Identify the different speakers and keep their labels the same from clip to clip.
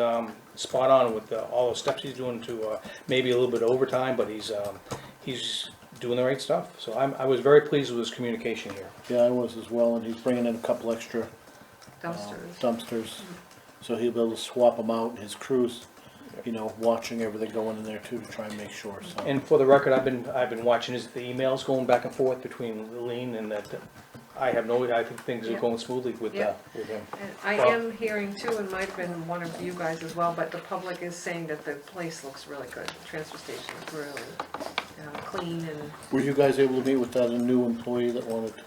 Speaker 1: um, spot on with uh, all the steps he's doing to, uh, maybe a little bit overtime, but he's, um, he's doing the right stuff. So I'm, I was very pleased with his communication here.
Speaker 2: Yeah, I was as well, and he's bringing in a couple extra uh,
Speaker 3: dumpsters.
Speaker 2: dumpsters, so he'll be able to swap them out, and his crews, you know, watching everything going in there too, to try and make sure, so.
Speaker 1: And for the record, I've been, I've been watching his, the emails going back and forth between Lean and that, I have no, I think things are going smoothly with, uh,
Speaker 3: Yeah.
Speaker 1: with him.
Speaker 3: And I am hearing too, and might have been one of you guys as well, but the public is saying that the place looks really good. The Transfer station is really um, clean and
Speaker 2: Were you guys able to meet with that new employee that wanted to?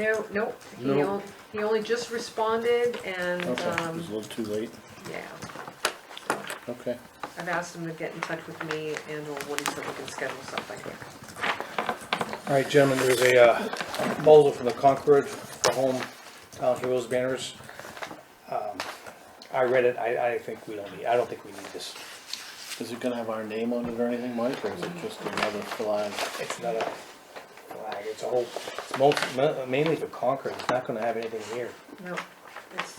Speaker 3: no, nope. He
Speaker 2: No.
Speaker 3: only, he only just responded and,
Speaker 2: Okay, it
Speaker 3: um,
Speaker 2: was a little too late,
Speaker 3: yeah.
Speaker 2: okay.
Speaker 3: I've asked him to get in touch with me and or Woody so we can schedule something.
Speaker 1: All right, gentlemen, there's a uh, folder from the Concord for Home Town Heroes banners. Um, I read it, I, I think we don't need, I don't think we need this.
Speaker 2: Is it gonna have our name on it or anything, Mike, or is it just
Speaker 3: Mhm.
Speaker 2: another flag?
Speaker 1: It's not a flag, it's a whole, it's most, mainly for Concord, it's not gonna have anything here.
Speaker 3: No, it's,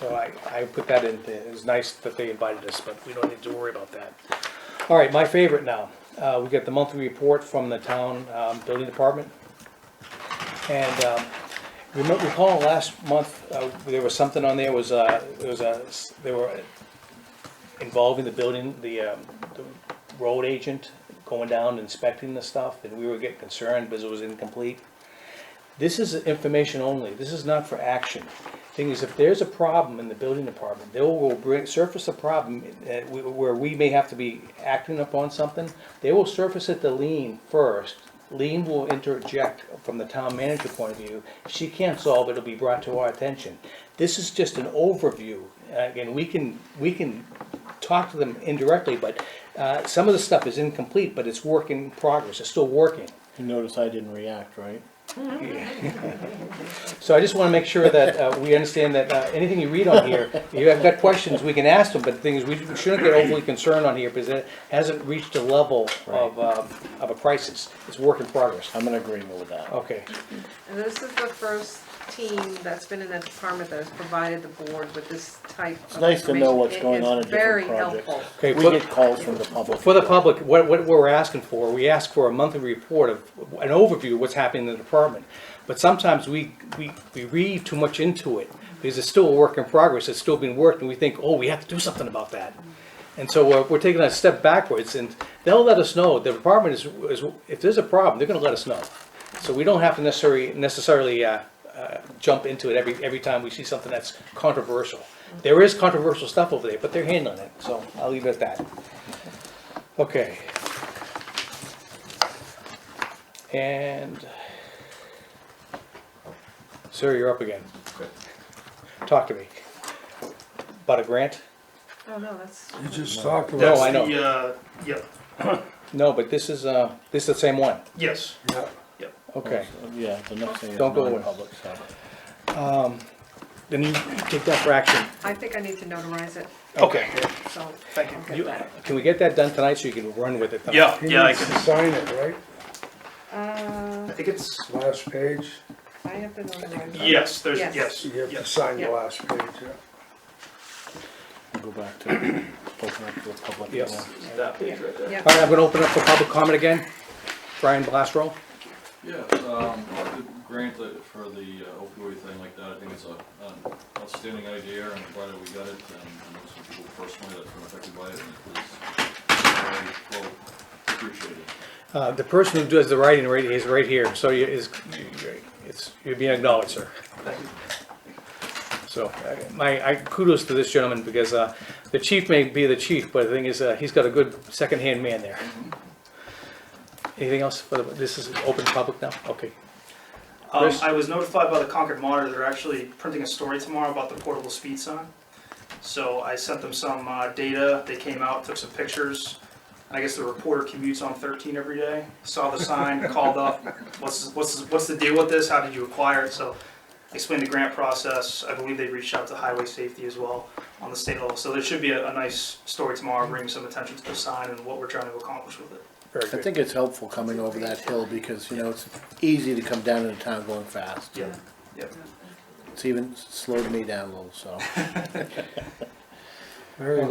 Speaker 1: So I, I put that in, there. it was nice that they invited us, but we don't need to worry about that. All right, my favorite now, uh, we get the monthly report from the town, um, building department. And, um, remember, recall last month, uh, there was something on there, was, uh, there was a, they were involving the building, the, um, the road agent going down inspecting the stuff, and we were getting concerned because it was incomplete. This is information only, this is not for action. Thing is, if there's a problem in the building department, they will bring, surface a problem uh, wh- where we may have to be acting upon something. They will surface it to Lean first. Lean will interject from the town manager point of view. If she can't solve it, it'll be brought to our attention. This is just an overview. Uh, Again, we can, we can talk to them indirectly, but uh, some of the stuff is incomplete, but it's work in progress, it's still working.
Speaker 2: You notice I didn't react, right?
Speaker 1: So I just want to make sure that uh, we understand that uh, anything you read on here, if you have got questions, we can ask them, but the thing is, we shouldn't get overly concerned on here because it hasn't reached a level of, um, of a crisis. It's work in progress.
Speaker 2: I'm in agreement with that.
Speaker 1: Okay,
Speaker 3: and this is the first team that's been in that department that has provided the board with this type of information.
Speaker 2: It's nice to know what's
Speaker 3: It
Speaker 2: going
Speaker 3: is
Speaker 2: on in different
Speaker 3: Very
Speaker 2: projects.
Speaker 3: helpful.
Speaker 1: Okay,
Speaker 2: We
Speaker 1: for-
Speaker 2: get calls from the public.
Speaker 1: for the public, what, what we're asking for, we ask for a monthly report of, an overview of what's happening in the department. But sometimes we, we, we read too much into it because it's still a work in progress. It's still being worked and we think, oh, we have to do something about that. And so we're, we're taking a step backwards and they'll let us know. The department is, is, if there's a problem, they're gonna let us know. So we don't have to necessarily, necessarily, uh, uh, jump into it every, every time we see something that's controversial. There is controversial stuff over there, but they're handling it, so I'll leave it at that. Okay. And, sir, you're up again. Talk to me. About a grant?
Speaker 3: Oh, no, that's.
Speaker 4: You just talked about.
Speaker 1: No, I know.
Speaker 5: The, uh, yeah,
Speaker 1: No, but this is, uh, this is the same one.
Speaker 5: yes,
Speaker 4: Yeah.
Speaker 5: yep.
Speaker 1: Okay.
Speaker 2: Yeah, the next thing is
Speaker 1: Don't go away.
Speaker 2: non-public, so.
Speaker 1: Then you take that for action.
Speaker 3: I think I need to notarize it,
Speaker 1: Okay.
Speaker 3: so.
Speaker 5: Thank you.
Speaker 3: I'll get
Speaker 1: You,
Speaker 3: that.
Speaker 1: can we get that done tonight so you can run with it? tonight?
Speaker 5: Yeah,
Speaker 4: He
Speaker 5: yeah, I
Speaker 4: needs to
Speaker 5: can,
Speaker 4: sign it, right?
Speaker 3: Uh,
Speaker 5: I think it's,
Speaker 4: Last page,
Speaker 3: I have been notarized.
Speaker 5: yes, there's,
Speaker 3: Yes.
Speaker 5: yes,
Speaker 4: you have to
Speaker 5: yes.
Speaker 4: sign the
Speaker 3: Yeah.
Speaker 4: last page, yeah.
Speaker 2: Go back to, open up to the public.
Speaker 1: Yes.
Speaker 2: again.
Speaker 5: That page right there.
Speaker 3: Yeah,
Speaker 1: All right, I'm gonna open up for public comment again. Brian Blastro?
Speaker 6: Yeah, um, I could grant that for the uh, opioid thing like that, I think it's a, an outstanding idea, and I'm glad that we got it, and I know some people personally that were affected by it, and it was very well appreciated.
Speaker 1: Uh, the person who does the writing right, is right here, so you, is, it's, you're being acknowledged, sir. So, uh, my, I kudos to this gentleman, because, uh, the chief may be the chief, but the thing is, uh, he's got a good second-hand man there. Anything else for the, this is open public now? Okay.
Speaker 5: Um,
Speaker 1: Chris?
Speaker 5: I was notified by the Concord Monitor, they're actually printing a story tomorrow about the portable speed sign. So I sent them some, uh, data, they came out, took some pictures. And I guess the reporter commutes on thirteen every day, saw the sign, called up, what's, what's, what's the deal with this, how did you acquire it? So explained the grant process, I believe they reached out to highway safety as well on the state level. So there should be a, a nice story tomorrow, bringing some attention to the sign and what we're trying to accomplish with it.
Speaker 1: Very
Speaker 2: I
Speaker 1: good.
Speaker 2: think it's helpful coming over that hill because, you know, it's easy to come down in a town going fast.
Speaker 5: Yeah, yep.
Speaker 2: It's even slowed me down a little, so.
Speaker 1: Very